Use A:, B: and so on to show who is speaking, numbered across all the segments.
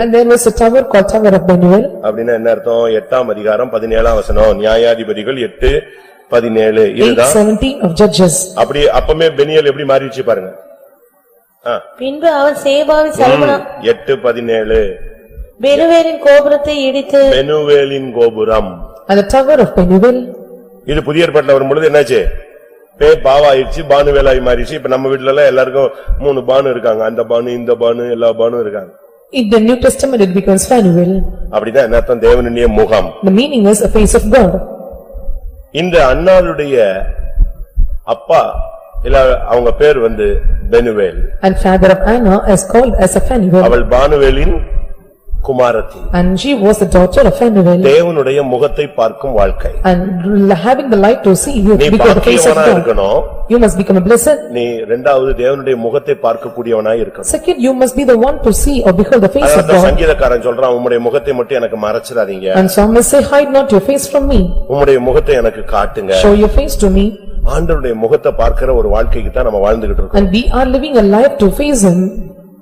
A: And there was a tower called Tower of Manuel.
B: அப்படின்னா என்ன அர்த்தம் எட்டாம் அதிகாரம் பதினேழாம் வசனம் நியாயாதிபதிகள் எட்டு பதினேழு
A: Eight
B: இதுதான்
A: seventeen of Judges.
B: அப்படி அப்பமே பெனியல் எப்படி மாறிடுச்சு பாருங்க ஆ,
C: பின்பு அவன் சேபாவி சல்மனா
B: எட்டு பதினேழு
C: பெருவேலின் கோபுரத்தை இடித்து
B: பெனுவேலின் கோபுரம்
A: And the Tower of Manuel,
B: இது புதிய ஏற்பாட்டுல வரும்பொழுது என்னாச்சு பே பாவாயிடுச்சு பானுவேலாய் மாறிடுச்சு இப்ப நம்ம வீட்ல எல்லாம் எல்லாருக்கும் மூணு பானு இருக்காங்க அந்த பானு இந்த பானு எல்லா பானும் இருக்காங்க
A: in the New Testament it becomes Fanuel.
B: அப்படின்னா என்ன அர்த்தம் தேவனுடைய முகம்
A: The meaning is a face of God.
B: இந்த அண்ணாளுடைய அப்பா இல்ல அவங்க பேர் வந்து Penuel
A: And father of Anna is called as a Fanuel.
B: அவள் பானுவேலின் குமாரத்தி
A: And she was the daughter of Fanuel.
B: தேவனுடைய முகத்தை பார்க்கும் வாழ்க்கை
A: And having the light to see, you
B: நீ
A: become the face of
B: பாக்கியவனா
A: God.
B: இருக்கணும்
A: You must become a blessed.
B: நீ இரண்டாவது தேவனுடைய முகத்தை பார்க்கக்கூடியவனா இருக்கணும்
A: Second, you must be the one to see or behold the face of
B: அதான்
A: God.
B: சங்கீதக்காரன் சொல்றான் உம்முடைய முகத்தை மட்டும் எனக்கு மறைச்சிடாதீங்க
A: And psalmist say, hide not your face from me,
B: உம்முடைய முகத்தை எனக்கு காட்டுங்க
A: show your face to me,
B: ஆண்டவருடைய முகத்தை பார்க்கிற ஒரு வாழ்க்கைக்கு தான் நம்ம வாழ்ந்துகிட்டு இருக்கோம்
A: and we are living a life to face him.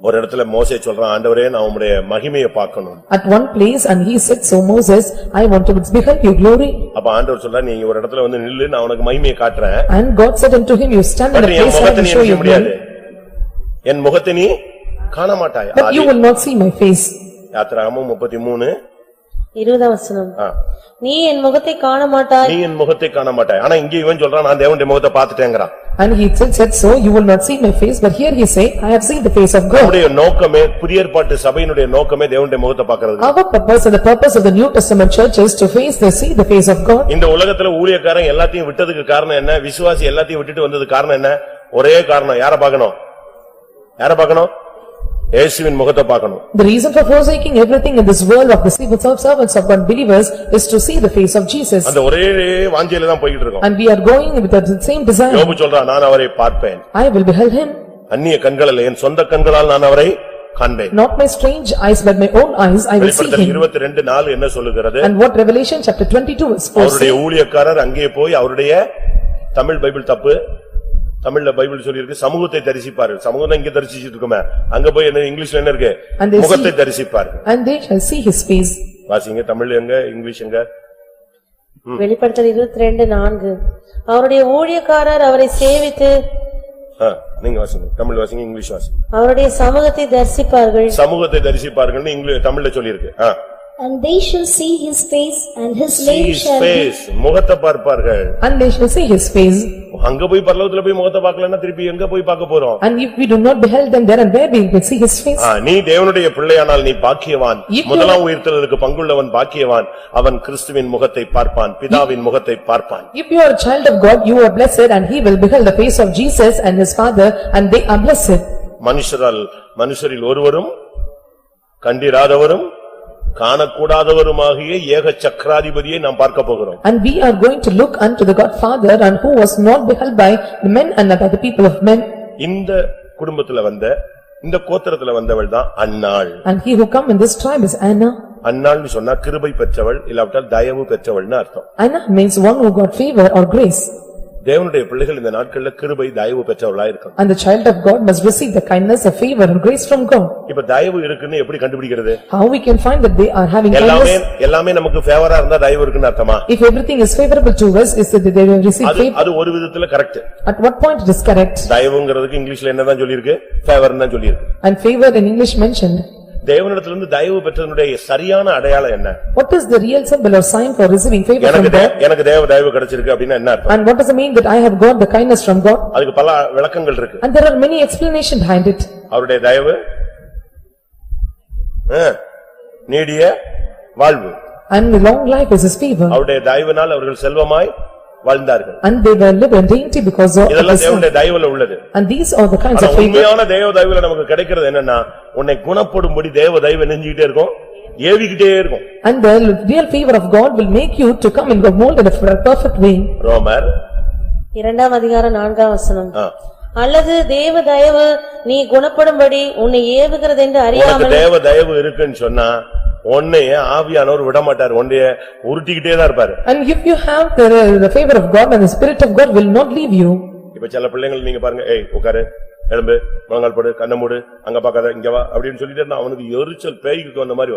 B: ஒரு இடத்துல மோசே சொல்றான் ஆண்டவரே நான் உம்முடைய மகிமையை பார்க்கணும்
A: At one place, and he said, so Moses, I want to behold your glory.
B: அப்ப ஆண்டவர் சொல்றா நீ ஒரு இடத்துல வந்து நில்லு நான் உனக்கு மகிமையை காட்டுறேன்
A: And God said unto him, you stand in
B: but
A: a
B: நீ என்
A: place where I will
B: முகத்தை நீ
A: show
B: எனக்கு
A: you
B: முடியாது
A: glory,
B: என் முகத்தை நீ காண மாட்டாய்
A: but you will not see my face.
B: யாத்திராகமும் முப்பத்தி மூணு
C: இருபதாம் வசனம்
B: ஆ.
C: நீ என் முகத்தை காண மாட்டாய்
B: நீ என் முகத்தை காண மாட்டாய் ஆனா இங்க இவன் சொல்றான் நான் தேவனுடைய முகத்தை பார்த்துட்டேங்கிறான்
A: And he said, said, so you will not see my face, but here he say, I have seen the face of God.
B: நம்முடைய நோக்கமே புதிய ஏற்பாட்டு சபையினுடைய நோக்கமே தேவனுடைய முகத்தை பார்க்கிறது
A: Our purpose and the purpose of the New Testament church is to face, the see the face of God.
B: இந்த உலகத்துல ஊழியக்காரன் எல்லாத்தையும் விட்டதுக்கு காரணம் என்ன விசுவாசி எல்லாத்தையும் விட்டுட்டு வந்தது காரணம் என்ன ஒரே காரணம் யார பார்க்கணும் யார பார்க்கணும் இயேசுவின் முகத்தை பார்க்கணும்
A: The reason for forsaking everything in this world of the servants of God believers is to see the face of Jesus.
B: அந்த ஒரே வாஞ்சையில தான் போய்கிட்டு இருக்கோம்
A: And we are going with the same desire.
B: யோபு சொல்றான் நான் அவரை பார்ப்பேன்
A: I will behold him,
B: அந்நிய கண்களில் என் சொந்த கண்களால் நான் அவரை காண்பேன்
A: not my strange eyes, but my own eyes, I will see
B: வெளிப்படுத்தல்
A: him.
B: இருபத்தி ரெண்டு நாள் என்ன சொல்லுகிறது
A: And what Revelation chapter twenty-two is for
B: அவருடைய ஊழியக்காரர் அங்கே போய் அவருடைய தமிழ் பைபிள் தப்பு தமிழ்ல பைபிள் சொல்லியிருக்கு சமூகத்தை தரிசிப்பார்கள் சமூகம் தான் இங்க தரிசிச்சிட்டு இருக்கோமே அங்க போய் என்ன இங்கிலீஷ்ல என்ன இருக்கு
A: And they see-
B: முகத்தை தரிசிப்பார்கள்
A: and they shall see his face.
B: வாசிங்க தமிழ் எங்க இங்கிலீஷ் எங்க
C: வெளிப்படுத்தல் இருபத்தி ரெண்டு நான்கு அவருடைய ஊழியக்காரர் அவரை சேவித்து
B: ஆ, நீங்க வாசிங்க தமிழ் வாசிங்க இங்கிலீஷ் வாசிங்க
C: அவருடைய சமூகத்தை தரிசிப்பார்கள்
B: சமூகத்தை தரிசிப்பார்கள்னு இங்கிலீஷ் தமிழ்ல சொல்லியிருக்கு ஆ.
D: And they shall see his face, and his
B: See
D: name
B: his
D: shall be.
B: face. முகத்தை பார்ப்பார்கள்
A: And they shall see his face.
B: அங்க போய் பரலோகத்துல போய் முகத்தை பார்க்கலன்னா திருப்பி எங்க போய் பார்க்க போறோம்
A: And if we do not behold them there and there, we will see his face.
B: ஆ, நீ தேவனுடைய பிள்ளையானால் நீ பாக்கியவான்
A: If you-
B: முதலாம் உயிர்த்தலுக்கு பங்குள்ளவன் பாக்கியவான் அவன் கிறிஸ்துவின் முகத்தை பார்ப்பான் பிதாவின் முகத்தை பார்ப்பான்
A: If you are a child of God, you are blessed and he will behold the face of Jesus and his father and they are blessed.
B: மனுஷரால் மனுஷரில் ஒருவரும் கண்டிராதவரும் காணக்கூடாதவருமாகிய ஏக சக்கராதிபதியை நாம் பார்க்க போகிறோம்
A: And we are going to look unto the God Father and who was not beheld by the men and by the people of men.
B: இந்த குடும்பத்துல வந்த இந்த கோத்திரத்துல வந்தவள் தான் அன்னாள்
A: And he who come in this tribe is Anna.
B: அன்னாள்னு சொன்னா கிருபை பெற்றவள் இல்லாவிட்டால் தயவு பெற்றவள்னு அர்த்தம்
A: Anna means one who got favor or grace.
B: தேவனுடைய பிள்ளைகள் இந்த நாட்கள்ல கிருபை தயவு பெற்றவளா இருக்கணும்
A: And the child of God must receive the kindness of favor and grace from God.
B: இப்ப தயவு இருக்குன்னு எப்படி கண்டுபிடிக்கிறது
A: How we can find that they are having
B: எல்லாமே,
A: kindness?
B: எல்லாமே நமக்கு ஃபேவரா இருந்தா தயவு இருக்குன்னு அர்த்தமா?
A: If everything is favorable to us, is that they will receive
B: அது,
A: favor?
B: அது ஒரு விதத்துல correct.
A: At what point it is correct?
B: தயவுங்கிறதுக்கு இங்கிலீஷ்ல என்னதான் சொல்லிருக்கு? ஃபேவர்னு தான் சொல்லிருக்கு.
A: And favor in English mentioned.
B: தேவனிடத்திலிருந்து தயவு பெற்றதனுடைய சரியான அடையாளம் என்ன?
A: What is the real symbol or sign for receiving favor
B: எனக்கு
A: from
B: தே-
A: God?
B: எனக்கு தேவ தயவு கிடைச்சிருக்கு அப்படின்னா என்ன அர்த்தம்?
A: And what does it mean that I have got the kindness from God?
B: அதுக்கு பல விளக்கங்கள் இருக்கு.
A: And there are many explanations behind it.
B: அவருடைய தயவு ஆ, நீடிய வாழ்வு.
A: And the long life is his favor.
B: அவருடைய தயவினால் அவர்கள் செல்வமாய் வாழ்ந்தார்கள்.
A: And they were live and dainty because of
B: இதெல்லாம்
A: this.
B: தேவனுடைய தயவுல உள்ளது.
A: And these are the kinds
B: ஆனா
A: of favor.
B: உண்மையான தேவ தயவுல நமக்கு கிடைக்கிறது என்னன்னா உன்னை குணப்படும்படி தேவ தயவு நெஞ்சிக்கிட்டே இருக்கும் ஏவிக்கிட்டே இருக்கும்
A: And the real favor of God will make you to come in the mold in a perfect way.
B: ரோமர்
C: இரண்டாம் அதிகாரம் நான்காம் வசனம்
B: ஆ.
C: அல்லது தேவ தயவு நீ குணப்படும்படி உன்னை ஏவுகிறதென்று
B: உனக்கு
C: அறியாமல்
B: தேவ தயவு இருக்குன்னு சொன்னா உன்னைய ஆவியானவர் விடமாட்டார் உன்னைய உருட்டிக்கிட்டே தான் இருப்பாரு
A: And if you have the the favor of God and the spirit of God will not leave you.
B: இப்ப சில பிள்ளைங்கள் நீங்க பாருங்க ஏய் உட்காரு எழும்பு முழங்கால் போடு கண்ணை மூடு அங்க பாக்காத இங்க வா அப்படின்னு சொல்லிட்டு இருந்தா அவனுக்கு எரிச்சல் பேய்க்கு வந்த மாதிரி வரும்.